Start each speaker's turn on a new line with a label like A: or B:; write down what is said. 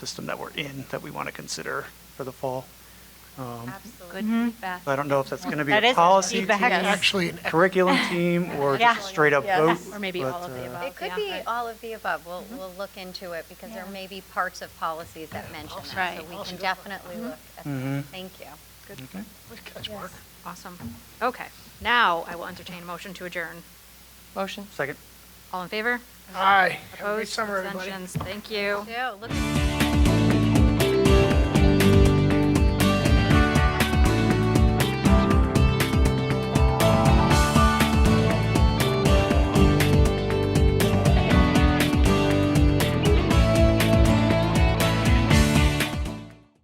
A: system that we're in that we want to consider for the fall. Um,
B: Absolutely.
C: Good feedback.
A: I don't know if that's going to be
C: That
A: a
C: is
A: policy team,
C: feedback, yes.
A: actually an curriculum team, or
C: Yeah.
A: just straight up
D: Yes.
A: vote.
B: Or maybe
A: but,
B: all of the
A: uh,
B: above.
A: I
B: Well,
E: It could
B: yeah,
E: be
B: but- Mm-hmm.
E: all of the above. We'll, we'll look into it because there
C: Yeah.
E: may be parts of policies that mention that.
C: Right.
E: So we can definitely
B: Mm-hmm.
E: look at
A: Mhm.
E: that. Thank you.
B: Awesome. Okay, now I will entertain a motion to adjourn.
D: Motion?
A: Second.
B: All in favor?
D: Aye. Have a great
B: Opposed?
D: summer, everybody.
B: Abstentions? Thank you.
E: So, look.